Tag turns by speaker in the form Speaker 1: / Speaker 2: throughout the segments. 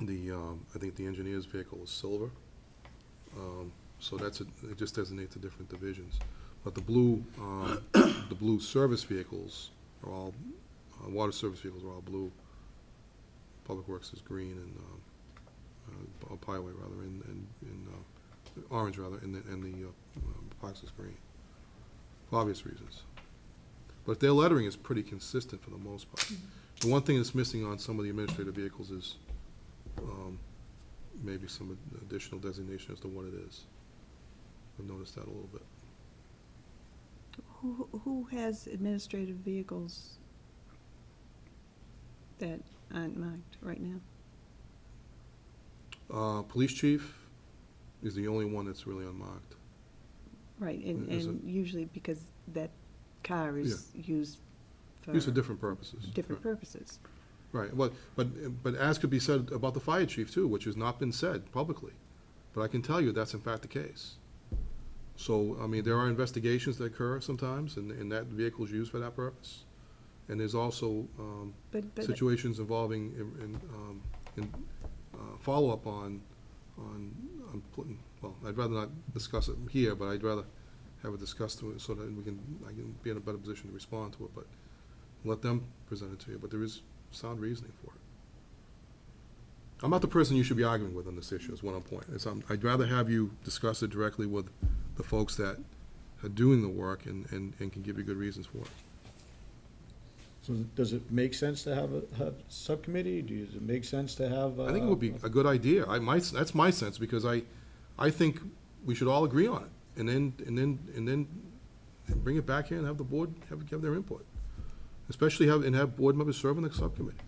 Speaker 1: The, um, I think the engineer's vehicle is silver. Um, So that's, a- it just designates the different divisions. But the blue, um, the blue service vehicles are all, uh, water service vehicles are all blue. Public Works is green and, um, uh, Up highway rather, and, and, and, uh, orange rather, and the, and the, uh, um, Fox is green. For obvious reasons. But their lettering is pretty consistent for the most part. The one thing that's missing on some of the administrative vehicles is, um, maybe some additional designation as to what it is. I've noticed that a little bit.
Speaker 2: Who, who has administrative vehicles that aren't marked right now?
Speaker 1: Uh, police chief is the only one that's really unmarked.
Speaker 2: Right, and,
Speaker 1: Is
Speaker 2: and usually because that car is used for
Speaker 1: These are different purposes.
Speaker 2: different
Speaker 1: Right.
Speaker 2: purposes.
Speaker 1: Right, but, but, but as could be said about the fire chief too, which has not been said publicly. But I can tell you that's in fact the case. So, I mean, there are investigations that occur sometimes and, and that vehicle's used for that purpose. And there's also, um,
Speaker 2: But, but,
Speaker 1: situations involving, in- in, um, in, uh, follow-up on, on, on, pl- well, I'd rather not discuss it here, but I'd rather have it discussed to- so that we can, I can be in a better position to respond to it, but let them present it to you, but there is sound reasoning for it. I'm not the person you should be arguing with on this issue, is what I'm pointing, it's, I'm- I'd rather have you discuss it directly with the folks that are doing the work and, and, and can give you good reasons for it.
Speaker 3: So does it make sense to have a, have subcommittee? Do- Does it make sense to have? uh,
Speaker 1: I think it would be a good idea. I, my, that's my sense, because I, I think we should all agree on it, and then, and then, and then bring it back here and have the board have, have their input. Especially have, and have board members serve on the subcommittee.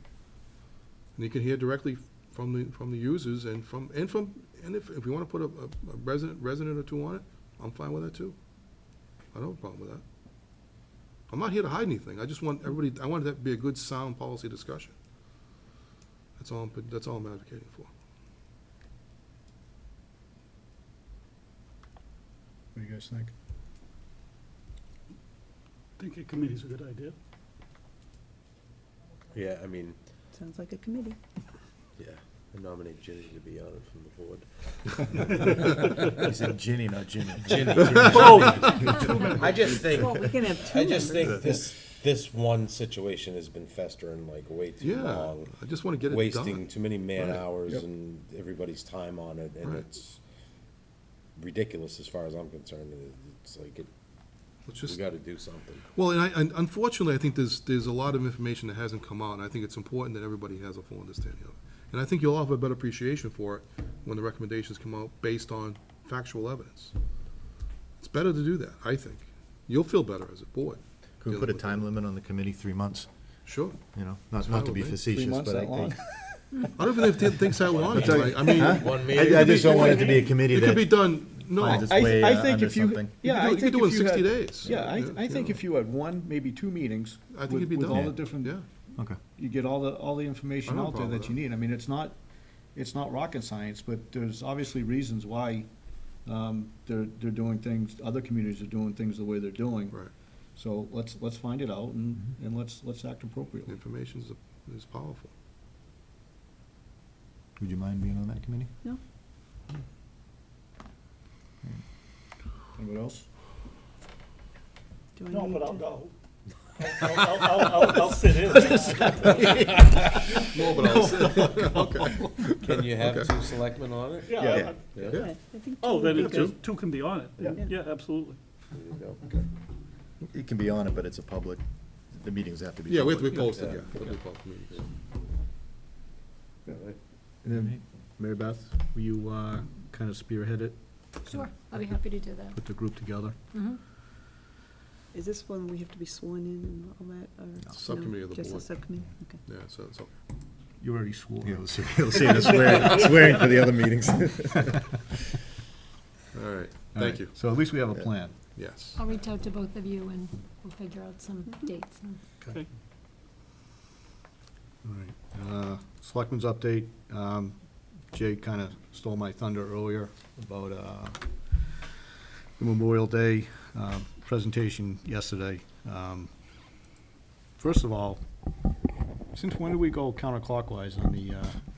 Speaker 1: And you can hear directly from the, from the users and from, and from, and if, if you wanna put a, a a resident, resident or two on it, I'm fine with that too. I don't have a problem with that. I'm not here to hide anything. I just want everybody, I want it to be a good, sound policy discussion. That's all, I'm- that's all I'm advocating for.
Speaker 3: What do you guys think?
Speaker 4: I think a committee's a good idea.
Speaker 5: Yeah, I mean,
Speaker 2: sounds like a committee.
Speaker 5: yeah, I nominate Ginny to be on it from the board. He said Ginny, not Jimmy. Ginny. I just
Speaker 2: Well,
Speaker 5: think,
Speaker 2: we can have two
Speaker 5: I
Speaker 2: members.
Speaker 5: just think this, this one situation has been festering like way too
Speaker 1: Yeah,
Speaker 5: long.
Speaker 1: I just want to get it
Speaker 5: Wasting
Speaker 1: done.
Speaker 5: too many man
Speaker 1: Right,
Speaker 5: hours
Speaker 3: yep.
Speaker 5: and everybody's time on it, and
Speaker 1: Right.
Speaker 5: it's ridiculous as far as I'm concerned. It's like, it-
Speaker 1: Let's
Speaker 5: we
Speaker 1: just,
Speaker 5: gotta do something.
Speaker 1: well, and I, and unfortunately, I think there's, there's a lot of information that hasn't come out, and I think it's important that everybody has a full understanding of it. And I think you'll all have a better appreciation for it when the recommendations come out based on factual evidence. It's better to do that, I think. You'll feel better as a board.
Speaker 6: Could we
Speaker 1: dealing
Speaker 6: put a
Speaker 1: with
Speaker 6: time limit on the committee, three months?
Speaker 1: Sure.
Speaker 6: You know,
Speaker 1: It's
Speaker 6: not, not to
Speaker 1: fine
Speaker 6: be
Speaker 1: with me.
Speaker 3: Three
Speaker 6: facetious,
Speaker 3: months
Speaker 6: but I
Speaker 3: that long?
Speaker 6: think.
Speaker 1: I don't even think it takes that long, right? I mean,
Speaker 5: One
Speaker 6: I,
Speaker 5: meeting.
Speaker 6: I just don't want it to be a committee
Speaker 1: it could be
Speaker 6: that,
Speaker 1: done, no,
Speaker 6: Finds its
Speaker 3: I,
Speaker 6: way,
Speaker 3: I
Speaker 6: uh,
Speaker 3: think
Speaker 6: under
Speaker 3: if you,
Speaker 6: something.
Speaker 1: You
Speaker 3: yeah,
Speaker 1: could do-
Speaker 3: I
Speaker 1: you could
Speaker 3: think if
Speaker 1: do
Speaker 3: you
Speaker 1: it in 60
Speaker 3: had-
Speaker 1: days.
Speaker 3: Yeah, I,
Speaker 1: Yeah,
Speaker 3: I think
Speaker 1: yeah.
Speaker 3: if you had one, maybe two meetings.
Speaker 1: I think
Speaker 3: with-
Speaker 1: it'd be
Speaker 3: With all
Speaker 1: done.
Speaker 3: the different,
Speaker 1: yeah.
Speaker 6: okay.
Speaker 3: you get all the, all the
Speaker 1: I
Speaker 3: information
Speaker 1: don't
Speaker 3: out there
Speaker 1: follow
Speaker 3: that you
Speaker 1: that.
Speaker 3: need. I mean, it's not, it's not rocket science, but there's obviously reasons why, um, they're, they're doing things, other communities are doing things the way they're doing.
Speaker 1: Right, Mm-hmm.
Speaker 3: So let's, let's find it out and, and let's, let's act appropriately.
Speaker 1: information is, is powerful.
Speaker 6: Would you mind being on that committee?
Speaker 2: No,
Speaker 3: Anybody else?
Speaker 2: do I
Speaker 4: No,
Speaker 2: need
Speaker 4: but I'll
Speaker 2: to?
Speaker 4: go. I'll, I'll, I'll- I'll, I'll sit in.
Speaker 1: No, but I'll say,
Speaker 5: Can you have two selectmen on it?
Speaker 4: Yeah,
Speaker 3: Yeah.
Speaker 4: I-
Speaker 5: Yeah.
Speaker 1: Yeah.
Speaker 2: Yeah, I think
Speaker 4: Oh,
Speaker 2: two would
Speaker 4: then
Speaker 2: be
Speaker 4: it-
Speaker 2: good.
Speaker 4: two, two can be on it.
Speaker 2: Yeah.
Speaker 4: Yeah, absolutely.
Speaker 5: There you go.
Speaker 6: It can be on it, but it's a public, the meetings have to be.
Speaker 1: yeah, we have to
Speaker 6: public.
Speaker 1: be posted,
Speaker 5: Yeah.
Speaker 1: yeah. it'll be public meetings.
Speaker 3: And then, Mary Beth, will you, uh, kind of spearhead it,
Speaker 7: Sure, I'll be happy to do that.
Speaker 3: put the group together?
Speaker 2: Is this one we have to be sworn in and all that, or? no,
Speaker 1: Subcommittee of the
Speaker 2: Just a
Speaker 1: board.
Speaker 2: subcommittee, okay.
Speaker 1: Yeah, so, so,
Speaker 3: You already swore.
Speaker 6: Yeah, we'll see, we'll see the swearing, swearing for the other meetings.
Speaker 1: all right,
Speaker 3: All
Speaker 1: thank
Speaker 3: right,
Speaker 1: you,
Speaker 3: So at least we have a plan.
Speaker 1: yes.
Speaker 7: I'll reach out to both of you and we'll figure out some dates and
Speaker 4: Okay.
Speaker 3: All right. Uh, Selectmen's update, um, Jay kind of stole my thunder earlier about uh, the Memorial Day uh, presentation yesterday. Um, First of all, since when do we go counterclockwise on the uh,